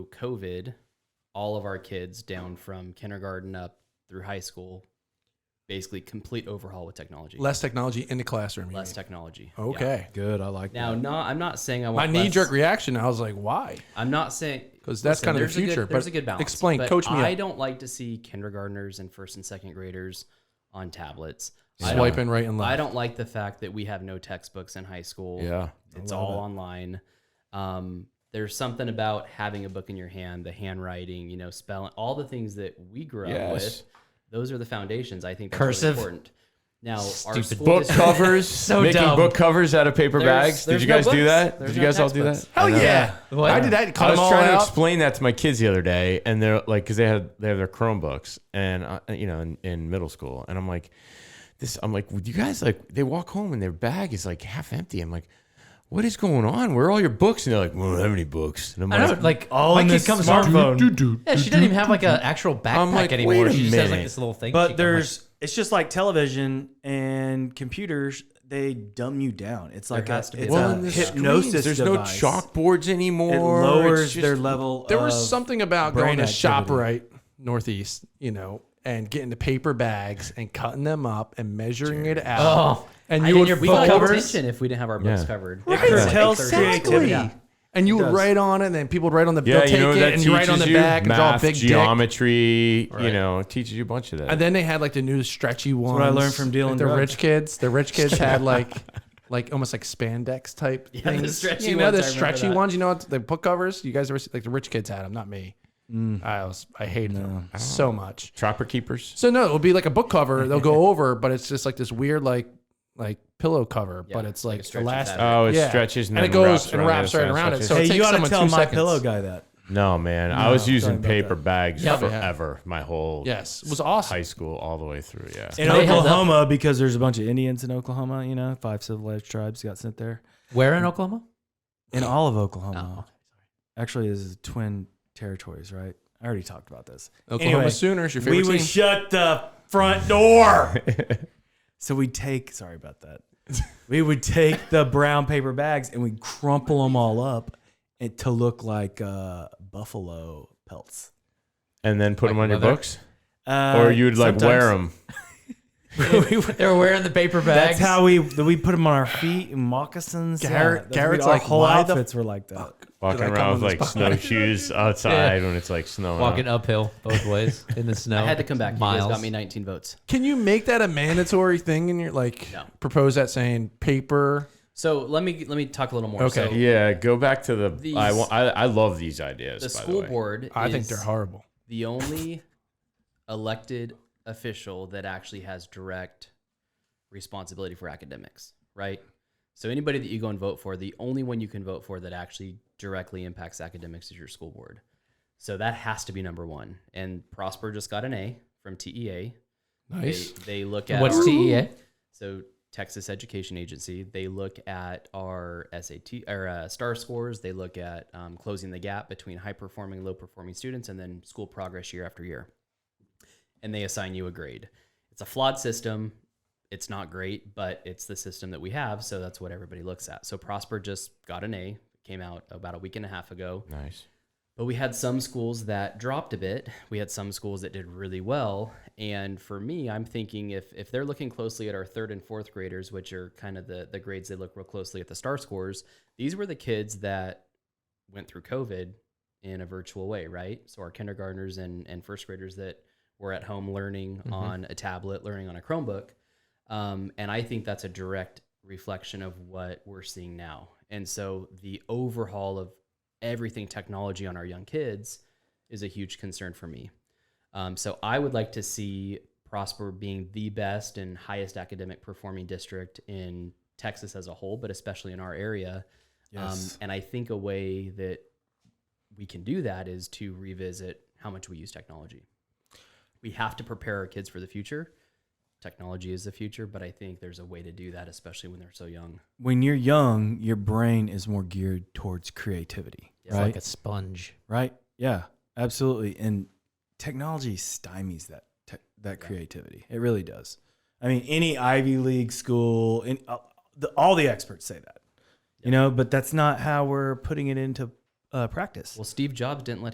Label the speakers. Speaker 1: COVID, all of our kids down from kindergarten up through high school, basically complete overhaul with technology.
Speaker 2: Less technology in the classroom. you
Speaker 1: Less
Speaker 2: mean.
Speaker 1: technology. yeah.
Speaker 2: Okay.
Speaker 3: Good. I like
Speaker 1: Now,
Speaker 3: that.
Speaker 1: no, I'm not saying I
Speaker 2: My
Speaker 1: want
Speaker 2: knee
Speaker 1: less-
Speaker 2: jerk reaction, I was like, why?
Speaker 1: I'm not saying
Speaker 2: Because that's
Speaker 1: Listen,
Speaker 2: kind of
Speaker 1: there's
Speaker 2: the future.
Speaker 1: A good, there's
Speaker 2: but
Speaker 1: a good balance.
Speaker 2: Explain,
Speaker 1: but
Speaker 2: coach me.
Speaker 1: I
Speaker 2: up.
Speaker 1: don't like to see kindergartners and first and second graders on tablets. I don't,
Speaker 2: Swiping right and left.
Speaker 1: I don't like the fact that we have no textbooks in high school.
Speaker 3: Yeah. I
Speaker 1: it's
Speaker 3: love
Speaker 1: all
Speaker 3: it.
Speaker 1: online. Um, there's something about having a book in your hand, the handwriting, you know, spelling, all the things that we grew up with.
Speaker 3: Yes.
Speaker 1: Those are the foundations. I think that's
Speaker 4: Cursive.
Speaker 1: really important. Now, our
Speaker 4: Stupid
Speaker 1: school
Speaker 3: Book
Speaker 1: district-
Speaker 3: covers.
Speaker 4: So
Speaker 3: making
Speaker 4: dumb.
Speaker 3: book covers out of paper
Speaker 1: There's-
Speaker 3: bags. Did
Speaker 1: there's
Speaker 3: you
Speaker 1: no
Speaker 3: guys do
Speaker 1: books.
Speaker 3: that?
Speaker 1: There's
Speaker 3: Did you
Speaker 1: no
Speaker 3: guys all do that?
Speaker 1: textbooks.
Speaker 2: Hell
Speaker 3: I know.
Speaker 2: yeah.
Speaker 4: What?
Speaker 2: I did that. Cut
Speaker 3: I was
Speaker 2: them all
Speaker 3: trying
Speaker 2: out.
Speaker 3: to explain that to my kids the other day, and they're like, because they had they have their Chromebooks, and uh, you know, in, in middle school, and I'm like, this, I'm like, would you guys like? They walk home and their bag is like half empty. I'm like, what is going on? Where are all your books? And they're like, we don't have any books. And I'm
Speaker 4: I
Speaker 3: like,
Speaker 4: know, like all
Speaker 2: My
Speaker 4: in
Speaker 2: kid's
Speaker 4: this
Speaker 2: smart.
Speaker 4: smartphone.
Speaker 2: Do, do, do,
Speaker 4: yeah, she doesn't even have like an actual backpack
Speaker 3: like,
Speaker 4: anymore.
Speaker 3: wait a
Speaker 4: She just has like
Speaker 3: minute.
Speaker 4: this little thing. she
Speaker 5: But
Speaker 4: can,
Speaker 5: there's it's just like television and computers. They dumb you down. It's like
Speaker 1: has
Speaker 5: a,
Speaker 1: to be
Speaker 5: it's
Speaker 1: Well,
Speaker 5: a
Speaker 1: in the
Speaker 5: hypnosis.
Speaker 3: screens, There's
Speaker 5: device.
Speaker 3: no chalkboards anymore.
Speaker 5: It
Speaker 3: It's
Speaker 5: lowers
Speaker 3: just-
Speaker 5: their level.
Speaker 2: There
Speaker 5: of,
Speaker 2: was something about going
Speaker 5: brain
Speaker 2: to shop
Speaker 5: activity.
Speaker 2: right northeast, you know, and getting the paper bags and cutting them up and measuring it out.
Speaker 4: Oh.
Speaker 2: and
Speaker 1: I
Speaker 2: you
Speaker 1: didn't
Speaker 2: would
Speaker 1: hear- we
Speaker 2: fold-
Speaker 1: got
Speaker 4: covers.
Speaker 1: attention if we didn't have our books
Speaker 3: Yeah.
Speaker 1: covered.
Speaker 5: Right,
Speaker 1: It was like
Speaker 5: curtails,
Speaker 1: a third grade
Speaker 5: exactly.
Speaker 1: activity.
Speaker 2: and you would
Speaker 5: does.
Speaker 2: write on it, and then people would write on the
Speaker 3: Yeah,
Speaker 2: they'll
Speaker 3: you know what
Speaker 2: take
Speaker 3: that
Speaker 2: it and you write on the
Speaker 3: teaches you?
Speaker 2: back and draw a
Speaker 3: Math,
Speaker 2: big dick.
Speaker 3: geometry. You
Speaker 2: Right.
Speaker 3: know, it teaches you a bunch of that.
Speaker 2: And then they had like the new stretchy ones.
Speaker 5: what I learned from dealing
Speaker 2: like, the
Speaker 5: drugs.
Speaker 2: rich kids. The rich kids had like like almost like spandex type
Speaker 1: Yeah, the
Speaker 2: things.
Speaker 1: stretchy
Speaker 2: you know
Speaker 1: ones, I
Speaker 2: the
Speaker 1: remember
Speaker 2: stretchy
Speaker 1: that.
Speaker 2: ones. You know what the book covers. You guys ever see, like the rich kids had them, not me.
Speaker 1: Mm.
Speaker 2: I was I hated them so much.
Speaker 3: Trapper keepers.
Speaker 2: So no, it'll be like a book cover. They'll go over, but it's just like this weird like like pillow cover,
Speaker 1: Yeah,
Speaker 2: but it's
Speaker 1: like a
Speaker 2: like
Speaker 1: stretchy
Speaker 2: elastic.
Speaker 1: fabric.
Speaker 3: Oh, it
Speaker 2: Yeah.
Speaker 3: stretches and,
Speaker 2: And
Speaker 3: then
Speaker 2: it goes
Speaker 3: wraps
Speaker 2: and
Speaker 3: around the
Speaker 2: wraps
Speaker 3: other
Speaker 2: right
Speaker 3: side,
Speaker 2: around it,
Speaker 3: stretches.
Speaker 2: so-
Speaker 5: Hey,
Speaker 2: takes
Speaker 5: you ought to
Speaker 2: someone
Speaker 5: tell
Speaker 2: two
Speaker 5: my
Speaker 2: seconds.
Speaker 5: pillow guy that.
Speaker 3: no, man, I was
Speaker 5: sorry
Speaker 3: using
Speaker 5: about
Speaker 3: paper bags
Speaker 2: Yeah.
Speaker 3: forever. My whole
Speaker 2: Yes, it was awesome.
Speaker 3: high school all the way through. Yeah,
Speaker 5: in
Speaker 4: They held up.
Speaker 5: Oklahoma because there's a bunch of Indians in Oklahoma. You know, five civilized tribes got sent there
Speaker 4: where in Oklahoma?
Speaker 5: in all of Oklahoma. Actually, this is twin territories, right? I already talked about this.
Speaker 2: Oklahoma
Speaker 5: Anyway,
Speaker 2: Sooners, your
Speaker 5: we
Speaker 2: favorite
Speaker 5: would
Speaker 2: team.
Speaker 5: shut the front door. so we take. Sorry about that. We would take the brown paper bags and we crumple them all up and to look like uh, buffalo pelts.
Speaker 3: and then put
Speaker 4: Like
Speaker 3: them on your
Speaker 4: leather?
Speaker 3: books,
Speaker 5: Uh,
Speaker 3: or you'd like wear them.
Speaker 5: we would-
Speaker 4: They were wearing the paper bags.
Speaker 5: That's how we we put them on our feet and moccasins.
Speaker 2: Garrett- Garrett's
Speaker 5: yeah, Garrett's our
Speaker 2: like,
Speaker 5: whole
Speaker 2: "Why the
Speaker 5: outfits were like that.
Speaker 3: Walking
Speaker 2: I come
Speaker 3: around
Speaker 2: on
Speaker 3: with like
Speaker 2: this podcast?
Speaker 3: snowshoes outside when it's like snowing.
Speaker 4: walking uphill both ways in the snow.
Speaker 1: I had to come back. You guys
Speaker 4: Miles
Speaker 1: got me 19 votes.
Speaker 2: Can you make that a mandatory thing in your like
Speaker 1: No.
Speaker 2: propose that saying paper?
Speaker 1: So let me let me talk a little more.
Speaker 2: Okay.
Speaker 1: So
Speaker 3: Yeah, go back to the.
Speaker 1: These-
Speaker 3: I, want, I I love these ideas.
Speaker 1: the
Speaker 3: by
Speaker 1: school
Speaker 3: the way.
Speaker 1: board.
Speaker 2: I think
Speaker 1: is
Speaker 2: they're horrible.
Speaker 1: The only elected official that actually has direct responsibility for academics, right? So anybody that you go and vote for, the only one you can vote for that actually directly impacts academics is your school board. So that has to be number one. And Prosper just got an A from TEA.
Speaker 2: Nice.
Speaker 1: They, they look at
Speaker 4: What's E
Speaker 1: our-
Speaker 4: TEA?
Speaker 1: So Texas Education Agency, they look at our SAT or uh, STAR scores. They look at um, closing the gap between high performing, low performing students, and then school progress year after year. And they assign you a grade. It's a flawed system. It's not great, but it's the system that we have, so that's what everybody looks at. So Prosper just got an A. Came out about a week and a half ago.
Speaker 3: Nice.
Speaker 1: But we had some schools that dropped a bit. We had some schools that did really well. And for me, I'm thinking if if they're looking closely at our third and fourth graders, which are kind of the the grades they look real closely at the star scores, these were the kids that went through COVID in a virtual way, right? So our kindergartners and and first graders that were at home learning on a tablet, learning on a Chromebook. Um, and I think that's a direct reflection of what we're seeing now. And so the overhaul of everything technology on our young kids is a huge concern for me. Um, so I would like to see Prosper being the best and highest academic performing district in Texas as a whole, but especially in our area. Um, and I think a way that we can do that is to revisit how much we use technology. We have to prepare our kids for the future. Technology is the future, but I think there's a way to do that, especially when they're so young.
Speaker 5: when you're young, your brain is more geared towards creativity,
Speaker 1: It's
Speaker 5: right?
Speaker 4: Like a sponge.
Speaker 5: right? Yeah, absolutely. And technology stymies that te- that creativity. It really does. I mean, any Ivy League school, and uh, the, all the experts say that, you know. But that's not how we're putting it into uh, practice.
Speaker 1: Well, Steve Jobs didn't let